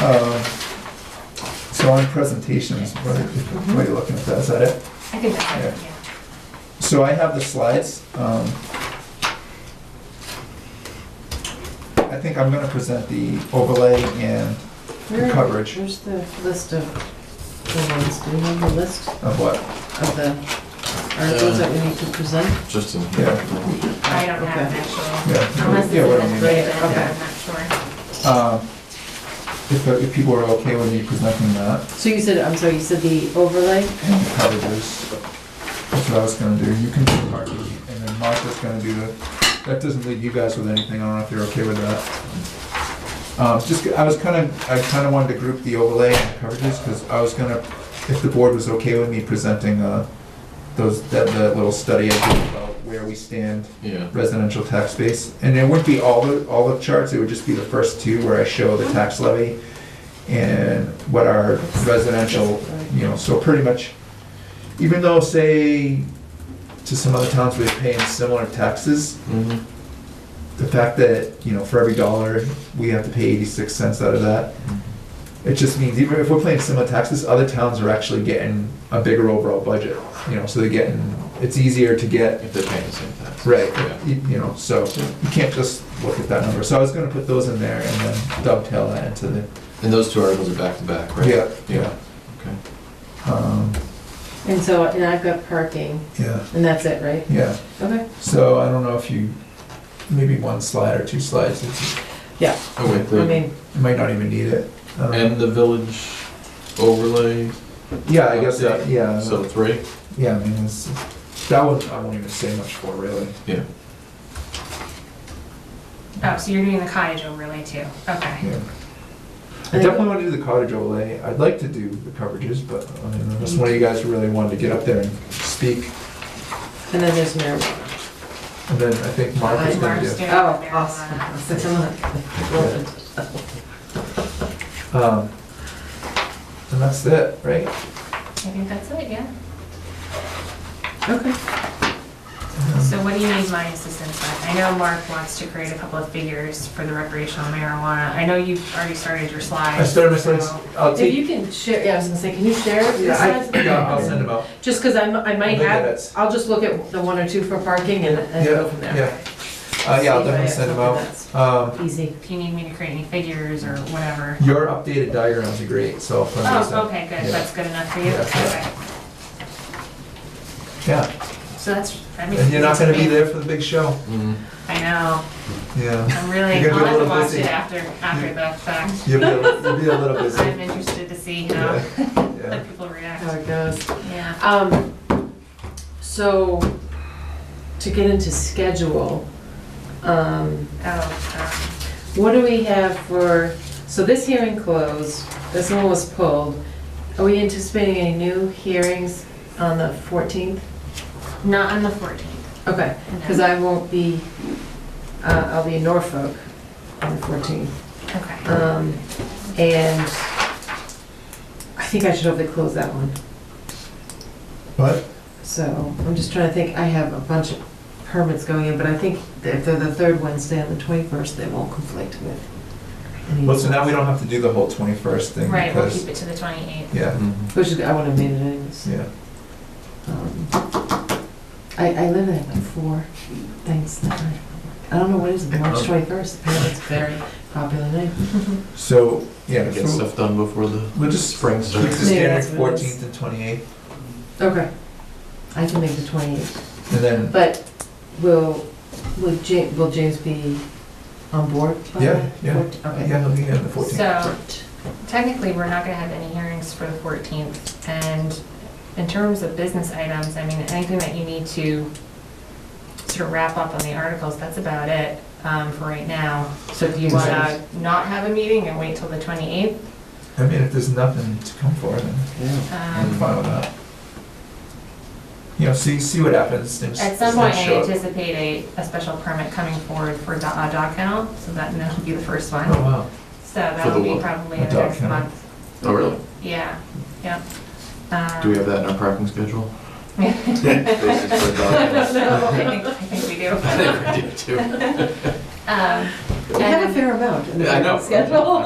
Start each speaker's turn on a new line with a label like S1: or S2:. S1: Um, So on presentations, what are what are you looking for, is that it?
S2: I think that's it, yeah.
S1: So I have the slides. um, I think I'm gonna present the overlay and the
S3: Where-
S1: coverage
S3: Where's the list of the ones, do you have the list
S1: of uh, what,
S3: of the articles that we need to present?
S4: Just in.
S1: yeah.
S2: I don't have an
S3: Okay.
S2: actual,
S1: Yeah.
S2: unless it's
S1: Yeah, what I
S2: in
S1: mean.
S2: the statement, I'm
S3: Okay.
S2: not sure.
S1: Um, If, uh, if people are okay with me presenting that,
S3: So you said, I'm sorry, you said the overlay?
S1: and the coverages, that's what I was gonna do. You can do parking, and then Martha's gonna do the, that doesn't leave you guys with anything, I don't know if you're okay with that. Um, Just, I was kinda, I kinda wanted to group the overlay and the coverages, because I was gonna, if the board was okay with me presenting uh, those, that, that little study I did about where we stand
S4: Yeah.
S1: residential tax base, and it wouldn't be all the, all the charts, it would just be the first two where I show the tax levy and what our residential, you know, so pretty much, even though, say, to some other towns, we're paying similar taxes,
S4: Mhm.
S1: the fact that, you know, for every dollar, we have to pay eighty-six cents out of that, it just means even if we're paying similar taxes, other towns are actually getting a bigger overall budget, you know, so they're getting, it's easier to get
S4: If they're paying the same tax.
S1: Right,
S4: Yeah.
S1: you you know, so you can't just look at that number. So I was gonna put those in there and then dovetail that into the,
S4: And those two articles are back to back, right?
S1: yeah, yeah.
S4: Yeah. Okay.
S1: Um,
S3: And so, and I've got parking,
S1: Yeah,
S3: and that's it, right?
S1: yeah.
S3: Okay.
S1: So I don't know if you, maybe one slide or two slides, it's-
S4: Oh, wait,
S3: I
S4: the,
S3: mean,
S1: you might not even need it. Um,
S4: and the village overlay,
S1: Yeah, I guess, that- yeah,
S4: so three?
S1: yeah, I mean, it's, that one, I won't even say much for really.
S4: Yeah.
S2: Oh, so you're doing the cottage overlay too, okay.
S1: Yeah. I definitely want to do the cottage overlay. I'd like to do the coverages, but I don't know, unless one of you guys really wanted to get up there and speak,
S3: and then there's marijuana.
S1: and then I think Mark is gonna do.
S2: Mark's doing the
S3: Oh,
S2: marijuana.
S3: awesome. So come on.
S1: Um, and that's it, right?
S2: I think that's it, yeah.
S3: Okay.
S2: So what do you need my assistance with? I know Mark wants to create a couple of figures for the recreational marijuana. I know you've already started your slides.
S1: I started my slides.
S2: so-
S1: I'll
S3: If
S1: take.
S3: you can share, yeah, I was gonna say, can you share your
S1: Yeah,
S3: slides?
S1: I, yeah, I'll send them out.
S3: Just because I'm, I might
S1: Look at
S3: have,
S1: it.
S3: I'll just look at the one or two for parking and, and go
S1: Yeah,
S3: from there.
S1: yeah. Uh, yeah, I'll definitely send them out. Um,
S3: Easy.
S2: If you need me to create any figures or whatever.
S1: your updated diagrams are great, so. I'll send those out.
S2: Oh, okay, good.
S1: Yeah.
S2: That's good enough for you?
S1: Yeah.
S2: Okay.
S1: Yeah,
S2: So that's, that makes.
S1: and you're not
S2: it easy
S1: gonna be
S2: for me.
S1: there for the big show.
S4: Mhm.
S2: I know.
S1: Yeah.
S2: I'm really,
S1: You're
S2: I'll
S1: gonna be a little
S2: have to watch
S1: busy.
S2: it after, after the fact.
S1: You'll be, a- you'll be a little busy.
S2: I'm interested to see how
S1: Yeah, yeah.
S2: the people react.
S3: How it goes.
S2: Yeah.
S3: Um, so, to get into schedule, um,
S2: Oh,
S3: what do we have for, so this hearing closed, this one was pulled. Are we anticipating any new hearings on the 14th?
S2: um, not on the 14th.
S3: Okay, because I won't be, uh, I'll be in Norfolk on the 14th.
S2: Okay.
S3: Um, and I think I should hopefully close that one.
S1: But,
S3: So I'm just trying to think, I have a bunch of permits going in, but I think that if they're the third Wednesday on the 21st, they won't conflict with. any-
S1: well, so now we don't have to do the whole twenty-first thing
S2: Right, we'll
S1: because,
S2: keep it to the 28th.
S1: yeah,
S4: Mhm.
S3: Which is, I wouldn't have made it anyways.
S1: yeah.
S3: Um, I, I live at like four things that night. I don't know what is it, March 21st, apparently it's a very popular name.
S1: So, yeah,
S4: Get
S1: so
S4: stuff done before the
S1: we'll just
S4: spring
S1: keep the
S4: starts.
S3: Maybe
S1: standard
S3: that's what it is.
S1: fourteenth and twenty-eighth,
S3: Okay. I can make the 28th,
S1: and then,
S3: but will, will James, will James be on board by
S1: Yeah,
S3: the
S1: yeah.
S3: 14th? Okay.
S1: yeah, we'll be on the fourteenth.
S2: So technically, we're not going to have any hearings for the 14th. And in terms of business items, I mean, anything that you need to sort of wrap up on the articles, that's about it um, for right now. So if you want to not have a meeting and wait till the 28th,
S1: I mean, if there's nothing to come for, then I'm
S2: um,
S1: fine with that. You know, see, see what happens. Just-
S2: At some
S1: just
S2: point, I
S1: show up.
S2: anticipate a, a special permit coming forward for do- a dog kennel, so that, and that'll be the first
S1: Oh,
S2: one.
S1: wow.
S2: So that'll be
S4: what?
S2: probably
S1: A
S2: in the
S1: dog
S2: next
S1: kennel?
S2: month.
S4: Oh, really?
S2: Yeah, yep. Um,
S4: Do we have that in our parking schedule? Basis for a dog
S2: I don't
S4: kennel.
S2: know, I think, I think we do.
S4: I think we do too.
S2: Um,
S3: I
S2: and-
S3: have a fair amount in the
S4: Yeah, I know.
S3: schedule.